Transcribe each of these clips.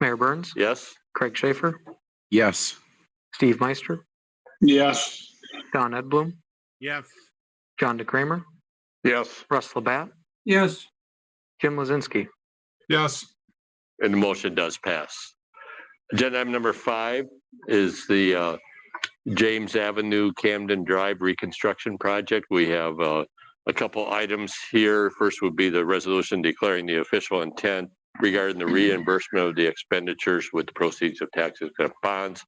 Mayor Burns, Yes. Craig Schaefer, Yes. Steve Meister, Yes. Don Edblum, Yes. John DeCramer, Yes. Russ Labatt, Yes. Jim Lozinski. Yes. And the motion does pass. Agenda item number five is the uh, James Avenue Camden Drive Reconstruction Project. We have uh, a couple items here. First would be the resolution declaring the official intent regarding the reimbursement of the expenditures with the proceeds of taxes and bonds.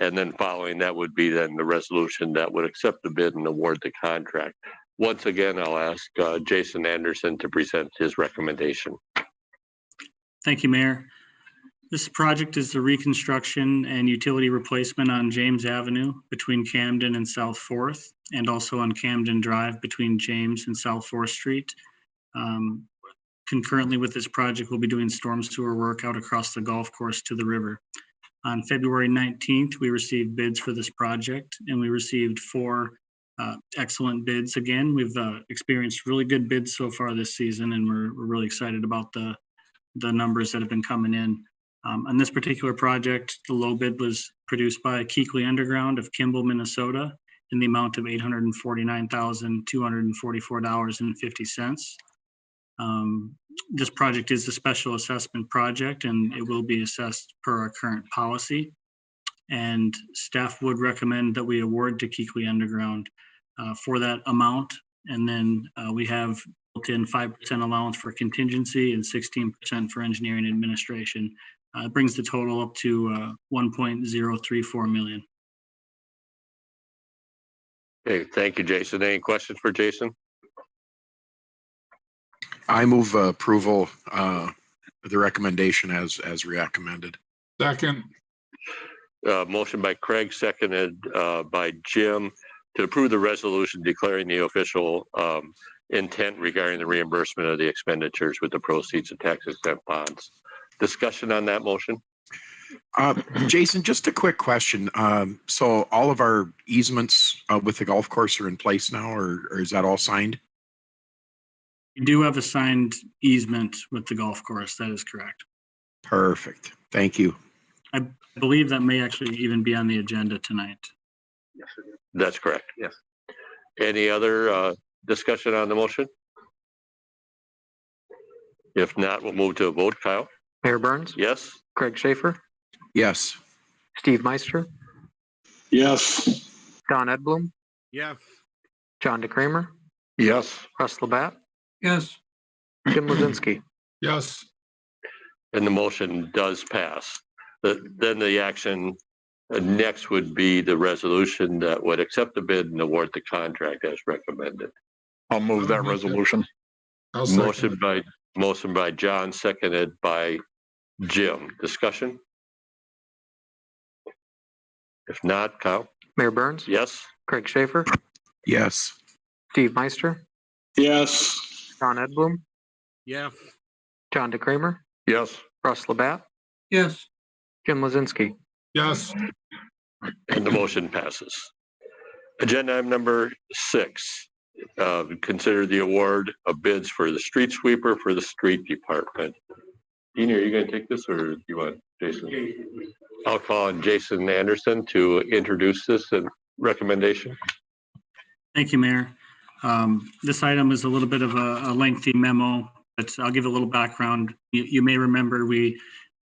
And then following that would be then the resolution that would accept the bid and award the contract. Once again, I'll ask uh, Jason Anderson to present his recommendation. Thank you, Mayor. This project is the reconstruction and utility replacement on James Avenue between Camden and South Fourth, and also on Camden Drive between James and South Fourth Street. Um, Concurrently with this project, we'll be doing storm sewer work out across the golf course to the river. On February 19th, we received bids for this project, and we received four uh, excellent bids. Again, we've uh, experienced really good bids so far this season, and we're we're really excited about the the numbers that have been coming in. Um, on this particular project, the low bid was produced by Keekly Underground of Kimball, Minnesota, in the amount of eight hundred and forty-nine thousand, two hundred and forty-four dollars and fifty cents. Um, this project is a special assessment project and it will be assessed per our current policy. And staff would recommend that we award to Keekly Underground, uh, for that amount. And then, uh, we have built-in five percent allowance for contingency and sixteen percent for engineering and administration. Uh, it brings the total up to, uh, one point zero three four million. Okay, thank you, Jason. Any questions for Jason? I move uh, approval, uh, of the recommendation as, as recommended. Second. Uh, motion by Craig, seconded, uh, by Jim to approve the resolution declaring the official, um, intent regarding the reimbursement of the expenditures with the proceeds of tax exempt bonds. Discussion on that motion? Uh, Jason, just a quick question. Um, so all of our easements uh, with the golf course are in place now, or, or is that all signed? We do have a signed easement with the golf course. That is correct. Perfect. Thank you. I believe that may actually even be on the agenda tonight. That's correct. Yes. Any other, uh, discussion on the motion? If not, we'll move to a vote. Kyle? Mayor Burns, Yes? Craig Schaefer, Yes. Steve Meister, Yes. Don Edblum, Yes. John DeCramer, Yes. Russ Labatt, Yes. Jim Lozinski. Yes. And the motion does pass. The- Then the action uh, next would be the resolution that would accept the bid and award the contract as recommended. I'll move that resolution. I'll second. Motion by, motion by John, seconded by Jim. Discussion? If not, Kyle? Mayor Burns, Yes? Craig Schaefer, Yes. Steve Meister, Yes. Don Edblum, Yes. John DeCramer, Yes. Russ Labatt, Yes. Jim Lozinski. Yes. And the motion passes. Agenda item number six, uh, consider the award of bids for the street sweeper for the street department. Dean, are you going to take this or do you want Jason? I'll call on Jason Anderson to introduce this and recommendation. Thank you, Mayor. Um, This item is a little bit of a a lengthy memo, but I'll give a little background. You you may remember we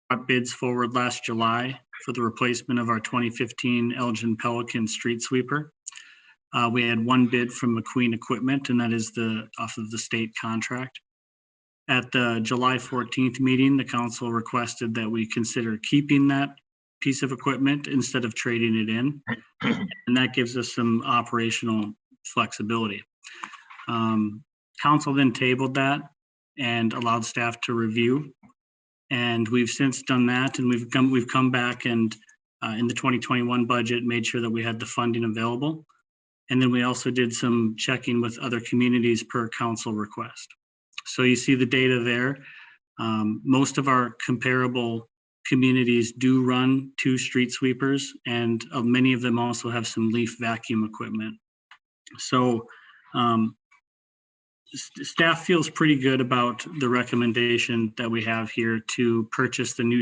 brought bids forward last July for the replacement of our 2015 Elgin Pelican street sweeper. Uh, We had one bid from McQueen Equipment, and that is the, off of the state contract. At the July 14th meeting, the council requested that we consider keeping that piece of equipment instead of trading it in. And that gives us some operational flexibility. Um, Council then tabled that and allowed staff to review. And we've since done that and we've come, we've come back and uh, in the 2021 budget, made sure that we had the funding available. And then we also did some checking with other communities per council request. So you see the data there. Um, Most of our comparable communities do run two street sweepers and uh, many of them also have some leaf vacuum equipment. So um, s- staff feels pretty good about the recommendation that we have here to purchase the new